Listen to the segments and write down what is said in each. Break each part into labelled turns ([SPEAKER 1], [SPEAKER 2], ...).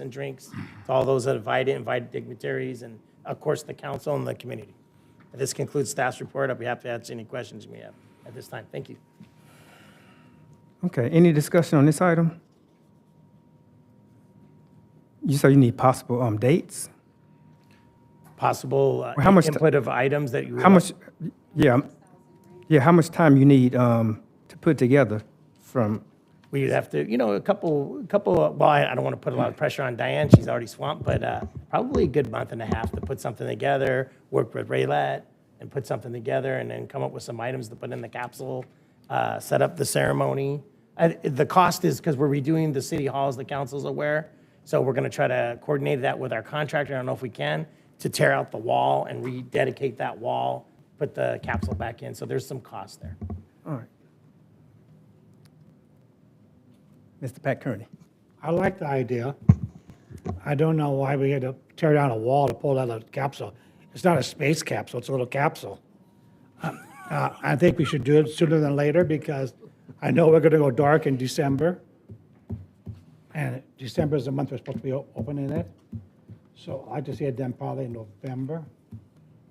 [SPEAKER 1] and drinks to all those that invited, invited dignitaries, and of course, the council and the community. This concludes staff's report. I'll be happy to answer any questions you may have at this time. Thank you.
[SPEAKER 2] Okay, any discussion on this item? You say you need possible, um, dates?
[SPEAKER 1] Possible uh,
[SPEAKER 2] How much ti-
[SPEAKER 1] input of items that you. would
[SPEAKER 2] How
[SPEAKER 1] like-
[SPEAKER 2] much, yeah, um, yeah, how much time you need, um, to put together from,
[SPEAKER 1] We'd have to, you know, a couple, a couple, well, I I don't want to put a lot of pressure on Diane, she's already swamped, but uh, probably a good month and a half to put something together, work with Raylat and put something together and then come up with some items to put in the capsule, uh, set up the ceremony. Uh, The cost is, because we're redoing the city halls, the council's aware, so we're going to try to coordinate that with our contractor, I don't know if we can, to tear out the wall and rededicate that wall, put the capsule back in, so there's some cost there.
[SPEAKER 2] all right. Mr. Pat Kearney,
[SPEAKER 3] I like the idea. I don't know why we had to tear down a wall to pull out a capsule. It's not a space capsule, it's a little capsule. Uh, I think we should do it sooner than later because I know we're gonna go dark in December. And December is the month we're supposed to be o- opening it. So I just had them probably in November,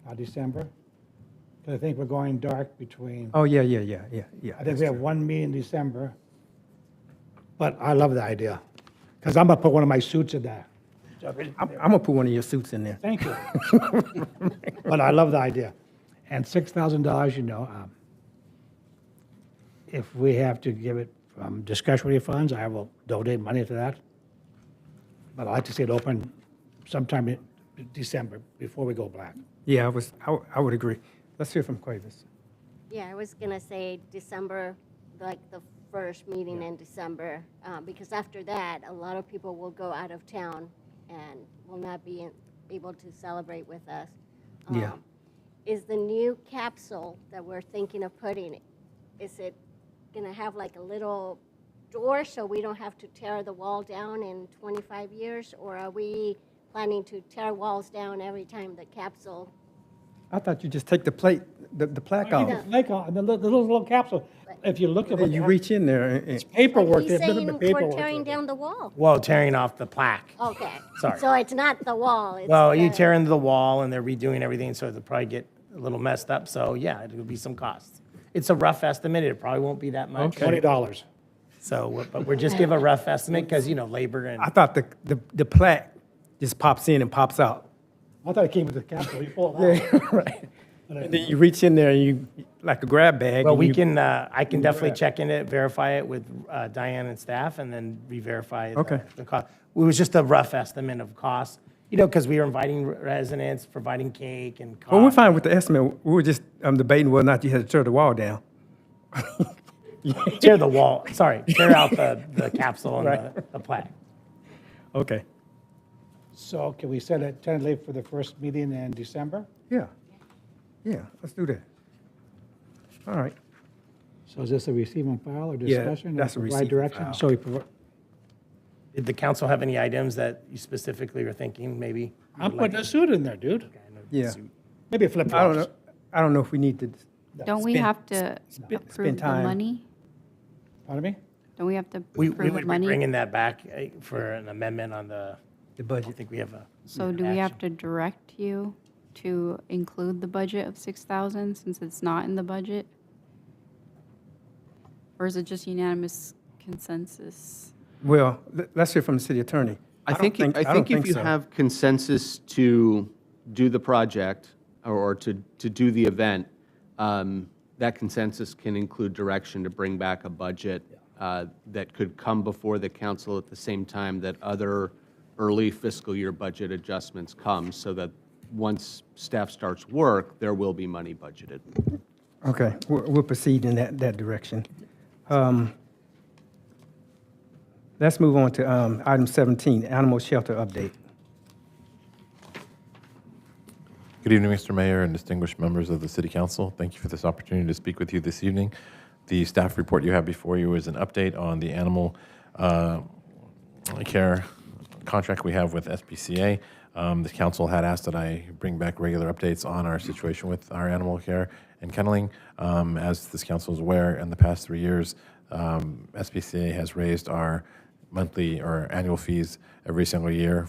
[SPEAKER 3] not December. Because I think we're going dark between.
[SPEAKER 2] oh, yeah, yeah, yeah, yeah, yeah.
[SPEAKER 3] I think we have one meeting in December, but I love the idea, because I'm gonna put one of my suits in there.
[SPEAKER 2] I'm, I'm gonna put one of your suits in there.
[SPEAKER 3] Thank you. But I love the idea. And six thousand dollars, you know, um, if we have to give it from discretionary funds, I will donate money to that. But I'd like to see it open sometime in December, before we go black.
[SPEAKER 2] Yeah, I was, I, w- I would agree. Let's hear from Cuevas.
[SPEAKER 4] Yeah, I was gonna say December, like the first meeting in December, uh, because after that, a lot of people will go out of town and will not be in- able to celebrate with us.
[SPEAKER 2] Yeah.
[SPEAKER 4] Um, Is the new capsule that we're thinking of putting, is it gonna have like a little door so we don't have to tear the wall down in 25 years? Or are we planning to tear walls down every time the capsule
[SPEAKER 2] I thought you just take the plate, the, the plaque off,
[SPEAKER 3] Like, uh, the li- the little, little capsule, if you look at
[SPEAKER 2] and you
[SPEAKER 3] it,
[SPEAKER 2] reach in there and, and,
[SPEAKER 3] paperwork,
[SPEAKER 4] He's
[SPEAKER 3] there's nothing
[SPEAKER 4] saying
[SPEAKER 3] but
[SPEAKER 4] we're
[SPEAKER 3] paperwork.
[SPEAKER 4] tearing down the wall.
[SPEAKER 1] Well, tearing off the plaque.
[SPEAKER 4] Okay.
[SPEAKER 1] Sorry.
[SPEAKER 4] So it's not the wall. It's
[SPEAKER 1] Well, you
[SPEAKER 4] the-
[SPEAKER 1] tear into the wall and they're redoing everything, so it'll probably get a little messed up. So yeah, it'll be some costs. It's a rough estimate. It probably won't be that much.
[SPEAKER 3] Twenty dollars.
[SPEAKER 1] So, we're- but we're just give a rough estimate because, you know, labor and
[SPEAKER 2] I thought the, the, the plaque just pops in and pops out.
[SPEAKER 3] I thought it came with the capsule. You pull it out.
[SPEAKER 2] Right. And then you reach in there and you, like a grab bag.
[SPEAKER 1] Well,
[SPEAKER 2] and
[SPEAKER 1] we
[SPEAKER 2] you-
[SPEAKER 1] can, uh, I can definitely check in it, verify it with uh, Diane and staff, and then re-verify the-
[SPEAKER 2] Okay.
[SPEAKER 1] the cost. It was just a rough estimate of cost, you know, because we were inviting re- residents, providing cake and.
[SPEAKER 2] Well, we're
[SPEAKER 1] coffee.
[SPEAKER 2] fine with the estimate. We were just um, debating whether or not you had to tear the wall down.
[SPEAKER 1] Tear the wall, sorry, tear out the, the capsule and the- the plaque.
[SPEAKER 2] Okay.
[SPEAKER 3] So can we set it tentatively for the first meeting in December?
[SPEAKER 2] Yeah. Yeah, let's do that. All right.
[SPEAKER 3] So is this a receive and file or
[SPEAKER 2] Yeah,
[SPEAKER 3] discussion? or
[SPEAKER 2] that's a
[SPEAKER 3] provide
[SPEAKER 2] receive and
[SPEAKER 3] direction?
[SPEAKER 2] file.
[SPEAKER 3] So we provi-
[SPEAKER 1] Did the council have any items that you specifically were thinking, maybe?
[SPEAKER 3] I'm putting a suit in there, dude.
[SPEAKER 2] Yeah.
[SPEAKER 3] Maybe a flip
[SPEAKER 2] I don't
[SPEAKER 3] flops.
[SPEAKER 2] know. I don't know if we need to.
[SPEAKER 5] Don't we
[SPEAKER 2] spend-
[SPEAKER 5] have to approve
[SPEAKER 2] spend
[SPEAKER 5] the
[SPEAKER 2] time.
[SPEAKER 5] money?
[SPEAKER 3] Pardon me?
[SPEAKER 5] Don't we have to
[SPEAKER 1] We, we
[SPEAKER 5] approve the
[SPEAKER 1] would be
[SPEAKER 5] money?
[SPEAKER 1] bringing that back eh, for an amendment on the,
[SPEAKER 2] The
[SPEAKER 1] I don't
[SPEAKER 2] budget.
[SPEAKER 1] think we have a.
[SPEAKER 5] So do we have to direct you to include the budget of 6,000 since it's not in the budget? Or is it just unanimous consensus?
[SPEAKER 2] Well, le- let's hear from the city attorney.
[SPEAKER 6] I
[SPEAKER 2] don't
[SPEAKER 6] think, I
[SPEAKER 2] don't
[SPEAKER 6] think if you
[SPEAKER 2] so.
[SPEAKER 6] have consensus to do the project or- or to, to do the event, um, that consensus can include direction to bring back a budget uh, that could come before the council at the same time that other early fiscal year budget adjustments come, so that once staff starts work, there will be money budgeted.
[SPEAKER 2] Okay, we'll, we'll proceed in that, that direction. Um, Let's move on to um, item 17, animal shelter update.
[SPEAKER 7] Good evening, Mr. Mayor and distinguished members of the City Council. Thank you for this opportunity to speak with you this evening. The staff report you have before you is an update on the animal uh, care contract we have with SPCA. Um, The council had asked that I bring back regular updates on our situation with our animal care and kenneling. Um, As this council is aware, in the past three years, um, SPCA has raised our monthly or annual fees every single year